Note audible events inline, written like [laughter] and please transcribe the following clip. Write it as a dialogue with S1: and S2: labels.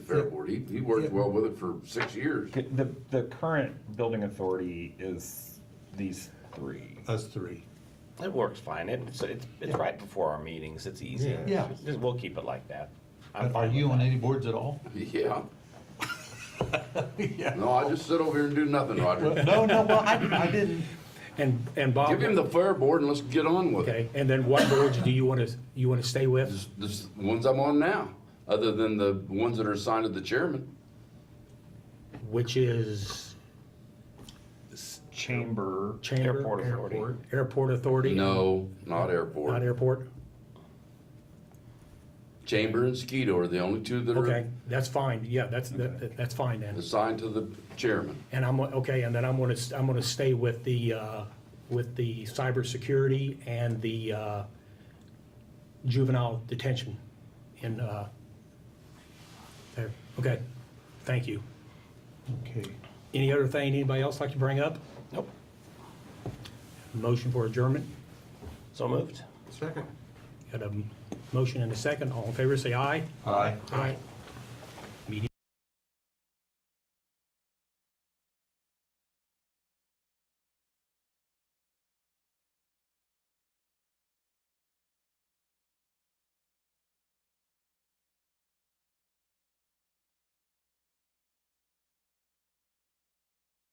S1: fair
S2: Yeah.
S1: board. He, he worked
S2: Yeah.
S1: well with it for six
S3: [laughs]
S1: years.
S4: The, the current building authority is these three.
S2: us three.
S5: It works fine. It's, it's, it's right before our meetings. It's easy.
S2: Yeah. Yeah.
S5: Just, we'll keep it like that. I'm
S6: Are
S5: fine
S6: you
S5: with
S6: on
S5: that.
S6: any boards at all?
S1: Yeah.
S2: Yeah.
S1: No, I just sit over here and do nothing, Roger.
S6: No, no, well, I, I didn't.
S3: And, and Bob,
S1: Give him the fair board and let's get on with it.
S3: okay, and then what boards do you want to, you want to stay with?
S1: The s- ones I'm on now, other than the ones that are assigned to the chairman.
S3: Which is
S4: Chamber.
S3: Chamber?
S4: Airport Authority.
S3: Airport- Airport Authority?
S1: No, not
S3: Not
S1: airport.
S3: airport?
S1: Chamber and Skeeto are the only two that
S3: Okay,
S1: are
S3: that's fine. Yeah, that's, that- that- that's fine then.
S1: assigned to the chairman.
S3: And I'm, okay, and then I'm going to, I'm going to stay with the, uh, with the cybersecurity and the uh, juvenile detention in, uh, there. Okay, thank you.
S6: Okay.
S3: Any other thing anybody else like to bring up?
S5: Nope.
S3: Motion for adjournment?
S5: So moved.
S2: Second.
S3: Got a motion and a second. All in favor, say aye.
S6: Aye.
S3: Aye.